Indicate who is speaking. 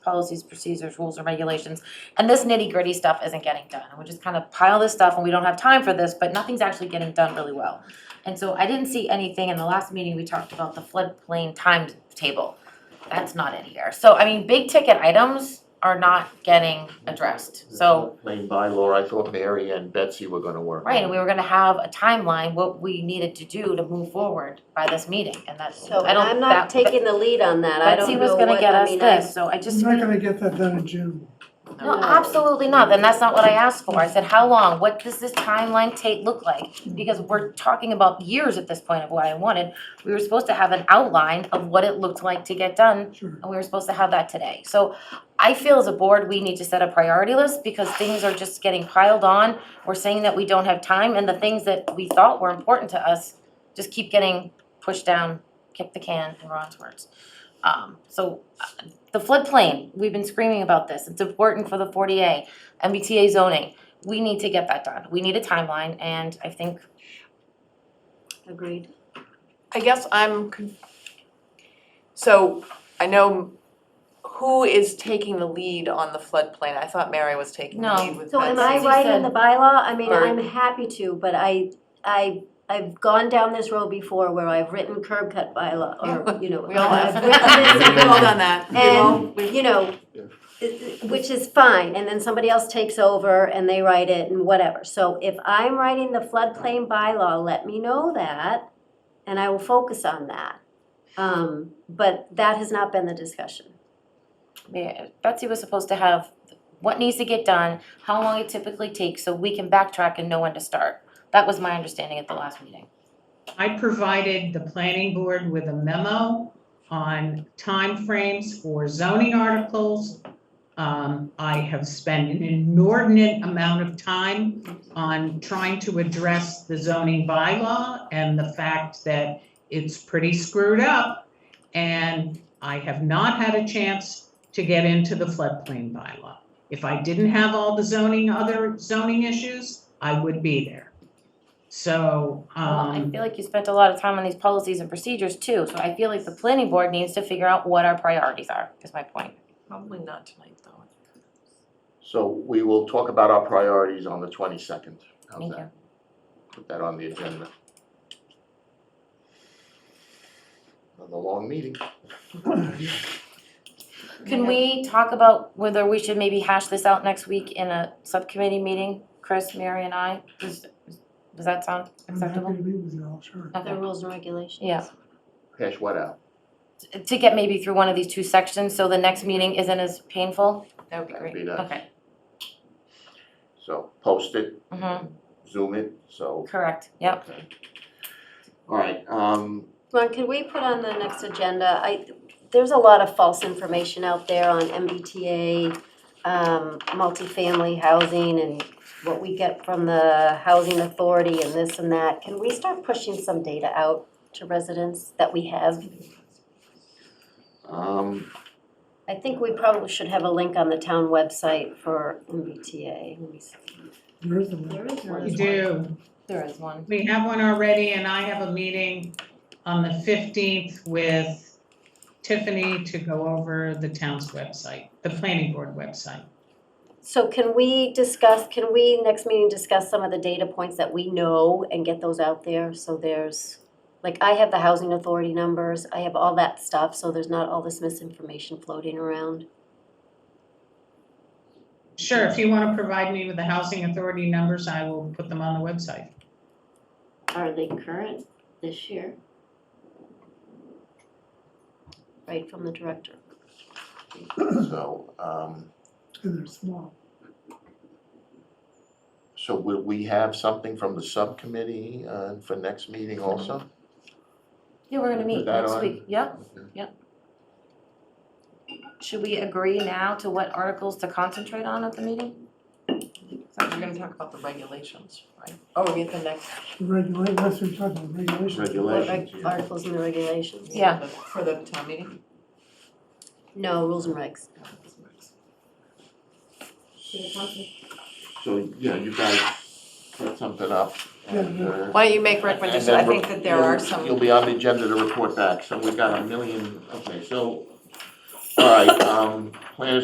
Speaker 1: policies, procedures, rules, and regulations. And this nitty-gritty stuff isn't getting done, and we just kind of pile this stuff, and we don't have time for this, but nothing's actually getting done really well. And so I didn't see anything, in the last meeting, we talked about the floodplain timetable, that's not in here. So, I mean, big-ticket items are not getting addressed, so.
Speaker 2: Main bylaw, I thought Mary and Betsy were gonna work.
Speaker 1: Right, and we were gonna have a timeline, what we needed to do to move forward by this meeting, and that's,
Speaker 3: So
Speaker 1: I don't,
Speaker 3: I'm not
Speaker 1: that, but
Speaker 3: taking the lead on that, I
Speaker 1: Betsy
Speaker 3: don't
Speaker 1: was
Speaker 3: know
Speaker 1: gonna
Speaker 3: what,
Speaker 1: get
Speaker 3: I
Speaker 1: us
Speaker 3: mean, I.
Speaker 1: this, so I just.
Speaker 4: I'm not gonna get that done in June.
Speaker 1: No, absolutely not, then that's not what I asked for, I said, how long, what does this timeline take, look like? Because we're talking about years at this point of what I wanted, we were supposed to have an outline of what it looked like to get done
Speaker 4: Sure.
Speaker 1: and we were supposed to have that today. So I feel as a board, we need to set a priority list because things are just getting piled on. We're saying that we don't have time and the things that we thought were important to us just keep getting pushed down, kick the can in Ron's words. Um, so uh, the floodplain, we've been screaming about this. It's important for the forty A, MBTA zoning. We need to get that done. We need a timeline and I think
Speaker 3: Agreed.
Speaker 5: I guess I'm, con- so I know who is taking the lead on the floodplain? I thought Mary was taking the
Speaker 1: No.
Speaker 5: lead with
Speaker 3: So am
Speaker 5: Betsy.
Speaker 3: I
Speaker 1: Betsy
Speaker 3: right in
Speaker 1: said-
Speaker 3: the bylaw? I mean,
Speaker 5: Or-
Speaker 3: I'm happy to, but I, I, I've gone down this road before where I've written curb cut bylaw, or, you know.
Speaker 5: We all have.
Speaker 3: I've written this and
Speaker 5: We've all
Speaker 3: that.
Speaker 5: done that. We've all-
Speaker 3: And, you know,
Speaker 2: Yeah.
Speaker 3: i- i- which is fine, and then somebody else takes over and they write it and whatever. So if I'm writing the floodplain bylaw, let me know that, and I will focus on that. Um, but that has not been the discussion.
Speaker 1: Yeah, Betsy was supposed to have what needs to get done, how long it typically takes, so we can backtrack and know when to start. That was my understanding at the last meeting.
Speaker 6: I provided the planning board with a memo on timeframes for zoning articles. Um, I have spent an inordinate amount of time on trying to address the zoning bylaw and the fact that it's pretty screwed up. And I have not had a chance to get into the floodplain bylaw. If I didn't have all the zoning, other zoning issues, I would be there. So,
Speaker 1: Well, I
Speaker 6: um.
Speaker 1: feel like you spent a lot of time on these policies and procedures too, so I feel like the planning board needs to figure out what our priorities are, is my point.
Speaker 5: Probably not tonight, though.
Speaker 2: So we will talk about our priorities on the twenty-second. How's
Speaker 1: Thank
Speaker 2: that? Put that on the agenda. Another long meeting.
Speaker 1: Can we talk about whether we should maybe hash this out next week in a subcommittee meeting, Chris, Mary and I? Does, does that sound
Speaker 4: I'm happy
Speaker 1: acceptable?
Speaker 4: to meet with you all, sure.
Speaker 1: Okay.
Speaker 3: rules and regulations.
Speaker 1: Yeah.
Speaker 2: Hash what out?
Speaker 1: To get maybe through one of these two sections, so the next meeting isn't as painful?
Speaker 5: That would be
Speaker 2: That'd
Speaker 5: great.
Speaker 2: be nice.
Speaker 1: Okay.
Speaker 2: So post it,
Speaker 1: Mm-hmm,
Speaker 2: zoom it, so.
Speaker 1: correct, yep.
Speaker 2: okay. All right, um,
Speaker 3: Ron, could we put on the next agenda, I, there's a lot of false information out there on MBTA, um, multifamily housing and what we get from the housing authority and this and that. Can we start pushing some data out to residents that we have?
Speaker 2: um,
Speaker 3: I think we probably should have a link on the town website for MBTA. Let me see.
Speaker 4: There is a link.
Speaker 3: There is
Speaker 6: We
Speaker 3: one.
Speaker 6: do.
Speaker 1: There is one.
Speaker 6: We have one already, and I have a meeting on the fifteenth with Tiffany to go over the town's website, the planning board website.
Speaker 3: So can we discuss, can we next meeting discuss some of the data points that we know and get those out there? So there's, like, I have the housing authority numbers, I have all that stuff, so there's not all this misinformation floating around.
Speaker 6: Sure, if you want to provide me with the housing authority numbers, I will put them on the website.
Speaker 3: Are they current this year? Right from the director.
Speaker 2: so, um,
Speaker 4: And they're small.
Speaker 2: so will we have something from the subcommittee, uh, for next meeting also?
Speaker 1: Yeah, we're gonna meet
Speaker 2: Put that
Speaker 1: next
Speaker 2: on?
Speaker 1: week, yeah.
Speaker 2: Okay.
Speaker 1: Should we agree now to what articles to concentrate on at the meeting?
Speaker 5: We're gonna talk about the regulations, right? Oh, we're at the next.
Speaker 4: The regulation, that's what we're talking about, regulations.
Speaker 3: What
Speaker 2: Regulation.
Speaker 3: reg- articles and the regulations?
Speaker 1: Yeah.
Speaker 5: For the town meeting?
Speaker 3: No, rules and regs.
Speaker 2: So, yeah, you guys put something up and, uh.
Speaker 5: Why don't you make
Speaker 2: And
Speaker 5: recommendations?
Speaker 2: then
Speaker 5: I think that there
Speaker 2: you'll-
Speaker 5: are some.
Speaker 2: You'll be on the agenda to report back, so we've got a million, okay, so All right, um, planners